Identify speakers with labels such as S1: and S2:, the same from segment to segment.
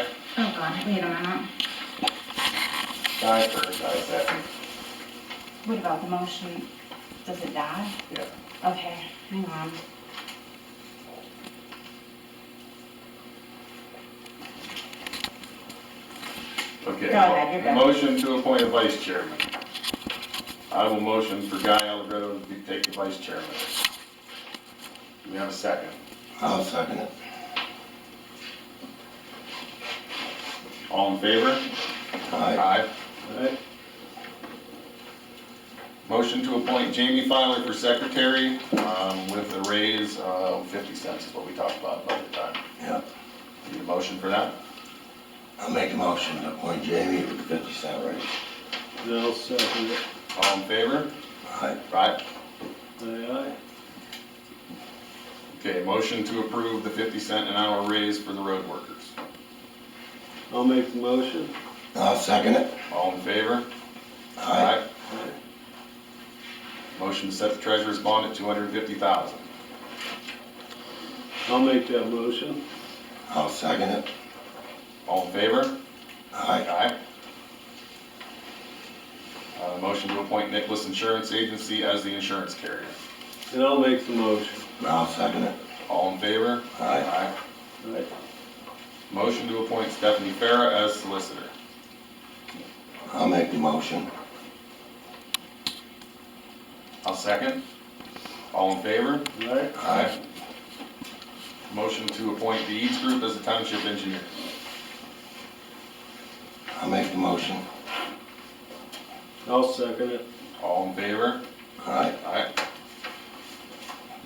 S1: on, I can get on it.
S2: Die first, die second.
S1: What about the motion? Does it die?
S2: Yeah.
S1: Okay, hang on.
S2: Okay.
S1: Go ahead, you're good.
S2: Motion to appoint a vice chairman. I will motion for Guy Allegretto to be- take the vice chairman. Do we have a second?
S3: I'll second it.
S2: All in favor?
S3: Aye.
S2: Aye. Motion to appoint Jamie Filer for secretary um, with a raise of 50 cents is what we talked about by the time.
S3: Yep.
S2: Need a motion for that?
S3: I'll make a motion to appoint Jamie with fifty cent raise.
S4: I'll second it.
S2: All in favor?
S3: Aye.
S2: Aye.
S4: Aye,
S2: Okay, motion to approve the 50 cent an hour raise for the road workers.
S4: aye. I'll make the motion.
S3: I'll second it.
S2: All in favor?
S3: Aye.
S4: Aye.
S2: Motion to set the treasurer's bond at 250,000.
S4: I'll make that motion.
S3: I'll second it.
S2: All in favor?
S3: Aye.
S2: Aye. Uh, motion to appoint Nicholas Insurance Agency as the insurance carrier.
S4: And I'll make the motion.
S3: I'll second it.
S2: All in favor?
S3: Aye.
S4: Aye.
S2: Motion to appoint Stephanie Farah as solicitor.
S3: I'll make the motion.
S2: I'll second. All in favor?
S4: Aye.
S3: Aye.
S2: Motion to appoint the Eads Group as a township engineer.
S3: I'll make the motion.
S4: I'll second it.
S2: All in favor?
S3: Aye.
S2: Aye.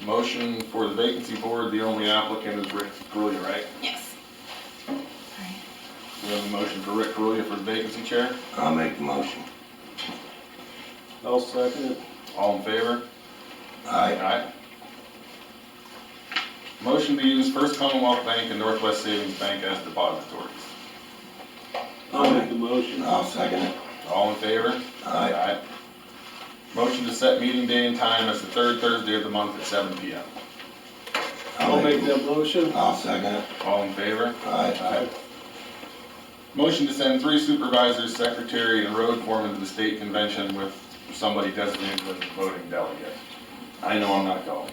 S2: Motion for the vacancy board, the only applicant is Rick Grulia, right?
S1: Yes. Sorry.
S2: We have a motion for Rick Grulia for the vacancy chair.
S3: I'll make the motion.
S4: I'll second it.
S2: All in favor?
S3: Aye.
S2: Aye. Motion to use First Commonwealth Bank and Northwest Savings Bank as depositories.
S4: I'll make the motion.
S3: I'll second it.
S2: All in favor?
S3: Aye.
S2: Motion to set meeting day and time as the third Thursday of the month at seven P M.
S4: I'll make that motion.
S3: I'll second it.
S2: All in favor?
S3: Aye.
S2: Motion to send three supervisors, secretary, and road foreman to the state convention with somebody designated as a voting delegate. I know I'm not going.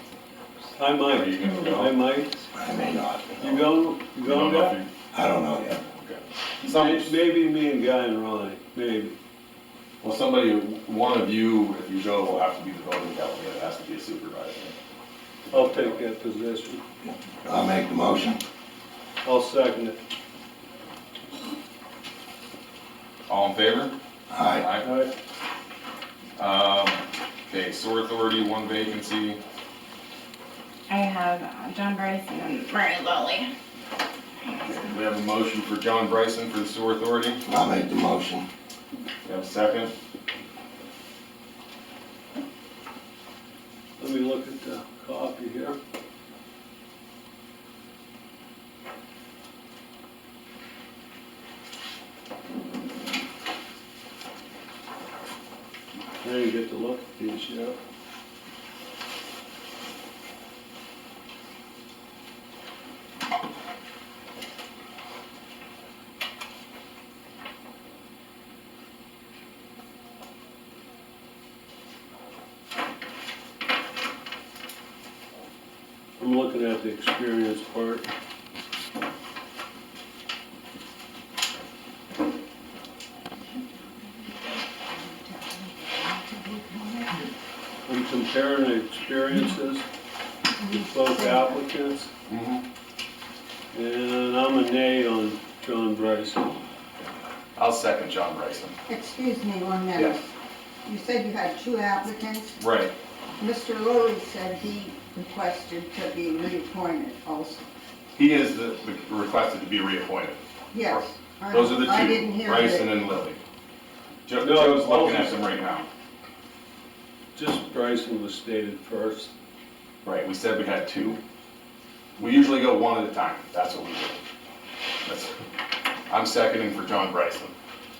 S4: I
S2: Are you gonna
S4: might.
S2: go?
S4: I might.
S3: I may not.
S4: You going? You
S2: You don't
S4: going
S2: know
S4: back?
S2: if
S3: I don't know
S2: you-
S3: yet.
S2: okay. Some,
S4: Maybe me and Guy and Ronnie, maybe.
S2: Well, somebody, one of you, if you go, will have to be the voting delegate, it has to be a supervisor.
S4: I'll take that position.
S3: I'll make the motion.
S4: I'll second it.
S2: All in favor?
S3: Aye.
S4: Aye.
S2: Um, okay, sewer authority, one vacancy,
S1: I have uh, John Bryce and then Mary Lolly.
S2: we have a motion for John Bryson for the sewer authority,
S3: I'll make the motion.
S2: we have a second,
S4: Let me look at the copy here. Now you get to look at these, yeah. I'm looking at the experience part. I'm comparing the experiences with both applicants,
S2: Mm-hmm.
S4: and I'm a nay on John Bryson.
S2: I'll second John Bryson.
S5: Excuse me one minute.
S2: Yes.
S5: You said you had two applicants.
S2: Right,
S5: Mr. Lilly said he requested to be reappointed also.
S2: he is the, requested to be reappointed,
S5: Yes. I-
S2: those are the
S5: I didn't
S2: two,
S5: hear
S2: Bryson
S5: that.
S2: and Lilly. Joe,
S4: No,
S2: Joe's looking
S4: both
S2: at
S4: is-
S2: them right now.
S4: Just Bryson was stated first.
S2: Right, we said we had two. We usually go one at a time, that's what we do. That's, I'm seconding for John Bryson.